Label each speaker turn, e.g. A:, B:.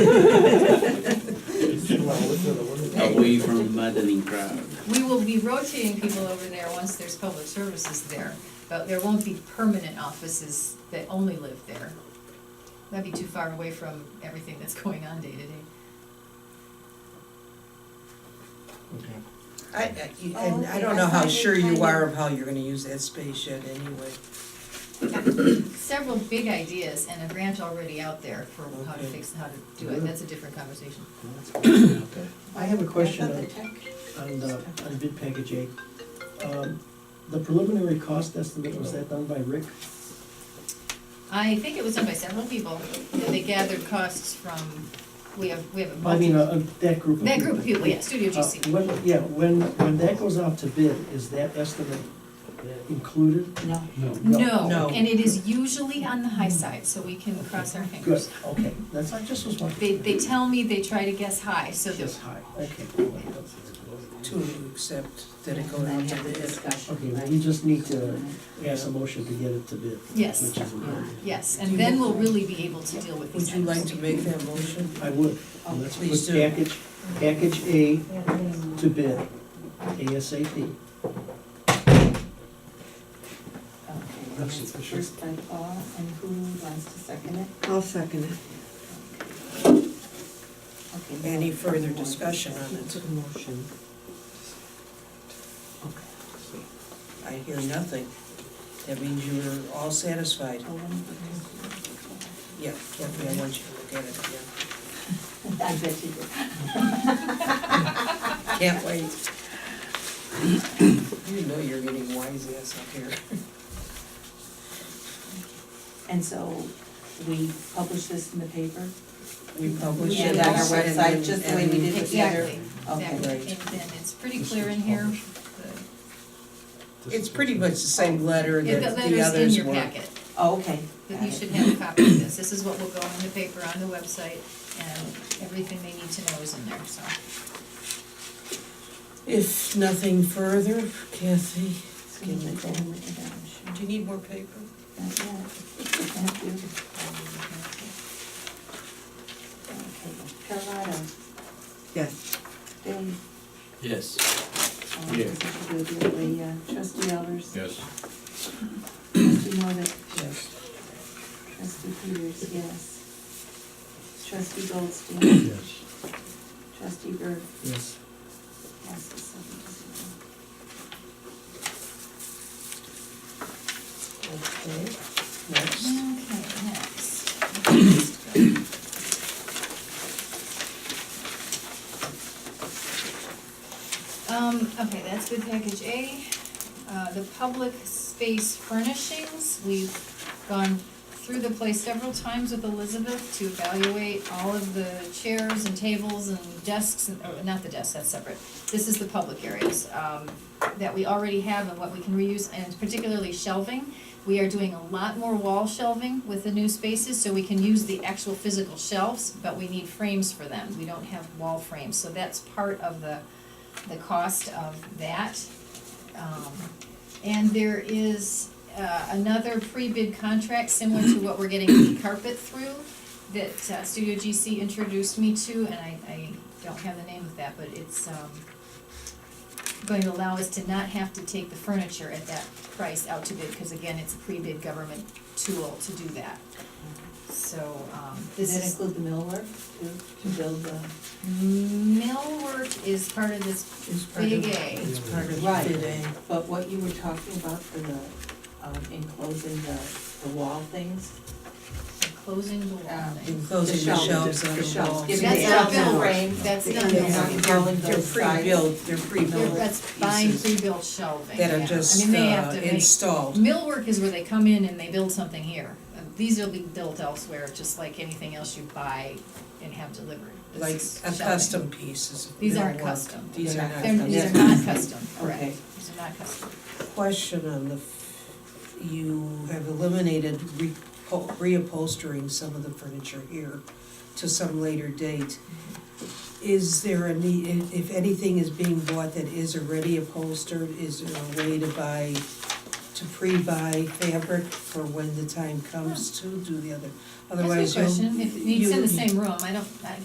A: muddling crowd.
B: We will be rotating people over there once there's public services there, but there won't be permanent offices that only live there. That'd be too far away from everything that's going on day to day.
C: I, I- you-
D: Oh,
C: and I
D: okay,
C: don't
D: I
C: know how
D: thought they
C: sure you
D: kinda-
C: are of how you're gonna use that space yet anyway.
B: Several big ideas and a grant already out there for how to
C: Okay.
B: fix, how to do it, that's a different conversation.
E: Okay. I have a question
D: I
E: on,
D: thought the tech-
E: on, uh, on bid package eight. Um, The preliminary cost estimate, was that done by Rick?
B: I think it was done by several people, and they gathered costs from, we have, we have a
E: I mean,
B: multi,
E: uh, uh, that group of people?
B: that group of people, yeah, Studio
E: Uh,
B: GC.
E: When, yeah, when, when that goes out to bid, is that estimate included?
D: No.
C: No.
B: No, and it is usually on the high side, so we can cross our
E: Good,
B: fingers.
E: okay, that's, I just was wondering.
B: They, they tell me they try to guess high, so
E: Just
B: that,
E: high, okay.
C: To accept that it
D: And
C: goes
D: then
C: out to
D: have the
C: bid.
D: discussion,
E: Okay, well,
D: right?
E: we just need to pass a motion to get it to bid.
B: Yes. Uh-huh.
E: Which is important.
B: yes, and then we'll really be able to deal with
C: Would
B: these
C: you
B: items.
C: like to make that motion?
E: I would.
C: Oh,
E: Let's put
C: please do.
E: package, package A
D: Yeah, I mean,
E: to bid ASAP.
D: okay, and it's First by Paul, and who wants to second it?
F: I'll second it.
D: Okay, now
C: Any
D: we have
C: further
D: more
C: discussion on
D: discussion.
C: it?
F: Motion.
C: I hear nothing. That means you're all satisfied.
D: Oh, one-
C: Yeah, Kathy, I want you to look at it again.
D: I bet you did.
C: Can't wait. You know you're getting wise ass up here.
D: And so we publish this in the paper?
C: We publish it.
D: And on our
C: Yes, and-
D: website, just the way we did
C: and-
D: it the other-
B: Exactly,
D: Okay,
B: exactly,
C: right.
B: and then it's pretty clear in here, the,
C: It's pretty much the same letter
B: yeah, the
C: that the
B: letter's in
C: others
B: your
C: were.
B: packet,
D: Oh, okay.
B: that
D: got
B: you
D: it.
B: should have a copy of this, this is what will go in the paper, on the website, and everything they need to know is in there, so.
C: If nothing further, Kathy,
D: So
C: can
D: you
C: you
D: put
C: go?
D: that in with the down, sure.
C: Do you need more paper?
D: Not yet. Thank you. Okay, Carlotta,
F: Yes.
D: Dave,
G: Yes.
D: all
G: Yeah.
D: those who do it the, uh, trustee Elders,
G: Yes.
D: trustee Norbit,
C: Yes.
D: trustee Peters, yes. Trustee Goldstein,
G: Yes.
D: trustee Berg,
E: Yes.
D: yes, it's seven to zero.
C: Okay, next.
B: Okay, next. Um, okay, that's bid package A. Uh, the public space furnishings, we've gone through the place several times with Elizabeth to evaluate all of the chairs and tables and desks, and, oh, not the desks, that's separate. This is the public areas, um, that we already have and what we can reuse, and particularly shelving. We are doing a lot more wall shelving with the new spaces, so we can use the actual physical shelves, but we need frames for them. We don't have wall frames, so that's part of the, the cost of that. Um, And there is uh, another pre-bid contract similar to what we're getting the carpet through that uh, Studio GC introduced me to, and I, I don't have the name of that, but it's, um, going to allow us to not have to take the furniture at that price out to bid, because again, it's a pre-bid government tool to do that. So, um, this
D: Does that
B: is,
D: include the millwork to, to build the?
B: millwork is part of this
C: It's part
B: big
C: of,
B: A.
C: it's part of
D: Right.
C: bid A.
D: But what you were talking about for the, um, enclosing the, the wall things,
B: Closing the wall
D: Um,
B: thing.
C: Enclosing the
D: shelves,
C: shelves on
D: the
C: the
D: shelves,
C: wall.
D: giving
B: That's
D: the
B: not
D: outside
B: built.
D: frame.
B: That's
D: the-
B: not
D: you're
B: built.
D: not building
C: They're
D: those sides.
C: pre-built, they're
B: They're-
C: pre-built
B: That's buying
C: pieces
B: pre-built shelving, yeah.
C: that are
B: I
C: just
B: mean, they have
C: uh,
B: to make,
C: installed.
B: millwork is where they come in and they build something here. Uh, These will be built elsewhere, just like anything else you buy and have delivered. This
C: Like
B: is
C: a
B: shelving.
C: custom pieces. of
B: These aren't
C: millwork.
B: custom.
C: These are not
B: They're, these are
C: custom.
B: not custom,
D: Okay.
B: correct, these are not custom.
C: Question on the, f- you have eliminated re- pol- reupholstering some of the furniture here to some later date. Is there a need, i- if anything is being bought that is already upholstered, is there a way to buy, to pre-buy fabric for when the time comes to do the other?
B: That's a good
C: Otherwise, you'll.
B: question, if it needs in the
C: you-
B: same room, I don't, I,